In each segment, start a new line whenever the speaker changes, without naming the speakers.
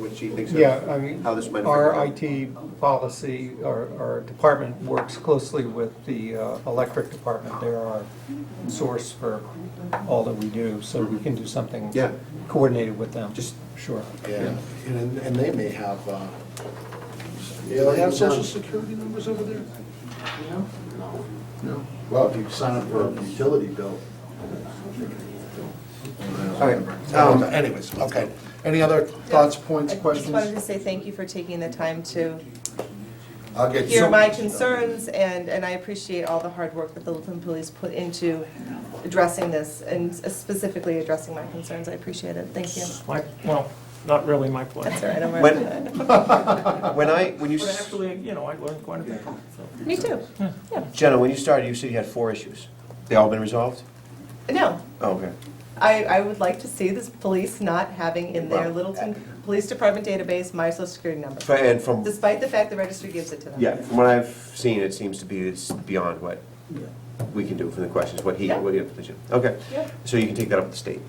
what she thinks
Yeah, I
of
mean,
how this might affect.
our
her.
IT policy, our, our department works closely with the uh, electric department. They're our source for all that we do, so we can do something
Yeah.
coordinated with them.
Just-
Sure.
Yeah, and, and they may have, uh,
Yeah, they have social security numbers over there?
no, no. Well, if you sign up for a utility bill.
All right,
Um,
um,
Anyways, okay. Any other thoughts, points,
I just wanted to
questions?
say thank you for taking the time to
I'll get
hear
some-
my concerns, and, and I appreciate all the hard work that the Littleton Police put into addressing this, and specifically addressing my concerns, I appreciate it, thank you.
My, well, not really my place.
That's all right, I'm all
When-
right.
when I, when you,
But
s-
actually, you know, I learned quite a bit. so.
Me too, yeah,
Jenna, when you started, you said you had four issues. They all been resolved?
no,
Oh, okay.
I, I would like to see this police not having in their
Well,
Littleton Police Department database my social security number,
F- And from,
despite the fact the registry gives it to them.
yeah, from what I've seen, it seems to be, it's beyond what we can do from the questions, what he,
Yeah.
what he, okay.
Yeah.
So you can take that up with the state.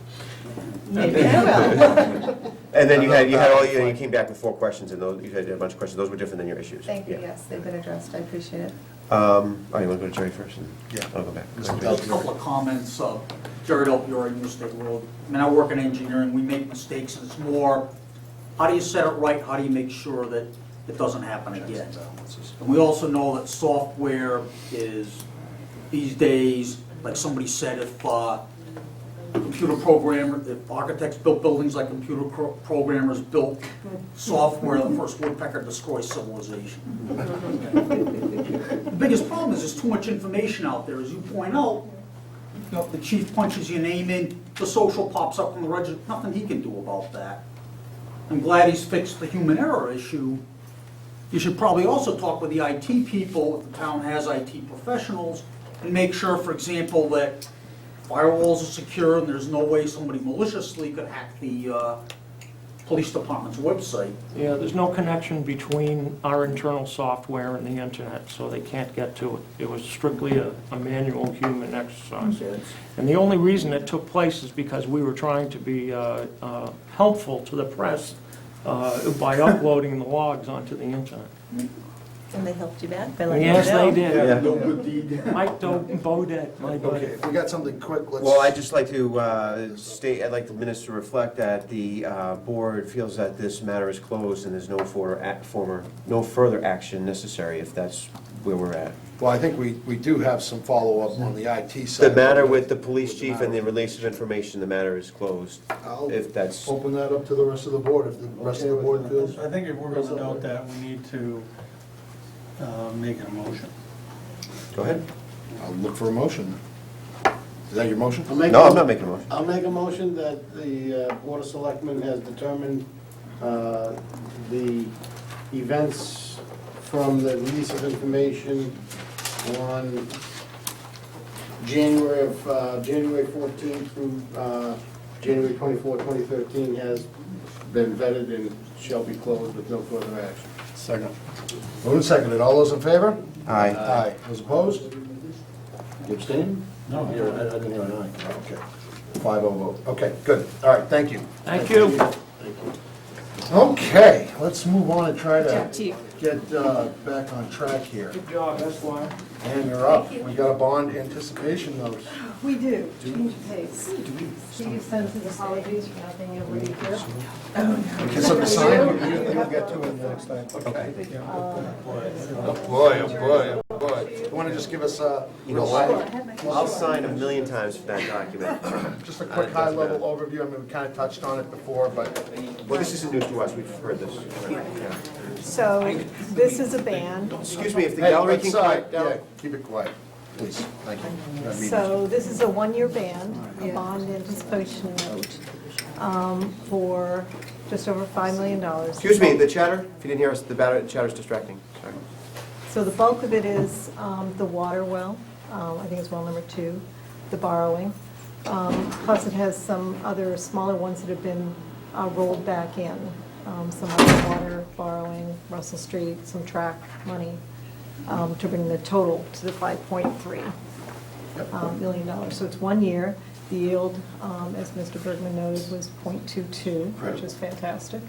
Maybe I will,
And then you had, you had all, you you came back with four questions, and those, you had a bunch of questions, those were different than your issues.
thank you,
Yeah.
yes, they've been addressed, I appreciate it.
Um, all right, we'll go to Jerry first, and
Yeah.
I'll go back.
A couple of comments, uh, Jared Opioid, New State Road. I mean, I work in engineering, we make mistakes, and it's more, how do you set it right, how do you make sure that it doesn't happen again? And we also know that software is, these days, like somebody said, if uh, computer programmer, if architects built buildings like computer pro- programmers built software, the first woodpecker destroys civilization. The biggest problem is there's too much information out there, as you point out. You know, the chief punches your name in, the social pops up on the register, nothing he can do about that. I'm glad he's fixed the human error issue. You should probably also talk with the IT people, if the town has IT professionals, and make sure, for example, that firewalls are secure and there's no way somebody maliciously could hack the, uh, police department's website.
Yeah, there's no connection between our internal software and the internet, so they can't get to it. It was strictly a a manual human exercise. And the only reason it took place is because we were trying to be uh, uh, helpful to the press uh, by uploading the logs onto the internet.
And they helped you back by letting you know.
Yes, they did.
Yeah.
No good deed.
Mike Do- Bodett, my buddy.
Okay, if we got something quick, let's.
Well, I'd just like to uh, state, I'd like the minutes to reflect that the uh, board feels that this matter is closed and there's no for- ac- former, no further action necessary if that's where we're at.
Well, I think we, we do have some follow-up on the IT side.
The matter with the police chief and the release of information, the matter is closed.
I'll
If that's,
Open that up to the rest of the board, if the rest of the board feels.
I think if we're gonna note that, we need to uh, make a motion.
go ahead.
I'll look for a motion. Is that your motion?
I'll make
No,
a-
I'm not making a motion.
I'll make a motion that the uh, Board of Selectmen has determined uh, the events from the release of information on January of, uh, January 14th through uh, January 24, 2013 has been vetted and shall be closed with no further action.
Second. Moved and seconded. All those in favor?
Aye.
Aye. Those opposed?
You abstain?
No.
I I didn't hear an aye.
Okay. Five oh vote. Okay, good. All right, thank you.
Thank you.
Okay, let's move on and try
Good job,
to
Chief.
get uh, back on track here.
Good job, that's why.
And you're up. We got a bond anticipation notice.
We do, change of pace. Steve sends his apologies for not being able to be here.
It's up to sign.
You- You'll get to it next time.
Oh, boy, oh, boy, oh, boy. You want to just give us a,
You know
Well, I
what?
had my-
I'll sign a million times for that document.
just a quick high-level overview? I mean, we kind of touched on it before, but
Well, this isn't news to us, we've heard this. Yeah.
So this is a ban.
Excuse me, if the
Hey,
gallery
let's,
can
uh,
quiet
yeah,
down.
keep it quiet, please, thank you. That means-
So this is a one-year ban, a bond anticipation note um, for just over $5 million.
Excuse me, the chatter, if you didn't hear us, the batter- chatter's distracting, sorry.
So the bulk of it is um, the water well, um, I think it's well number two, the borrowing. Um, Plus it has some other smaller ones that have been uh, rolled back in, um, some other water borrowing, Russell Street, some track money, um, to bring the total to the 5.3 um, million dollars. So it's one year. The yield, um, as Mr. Bergman noted, was .22, which is fantastic.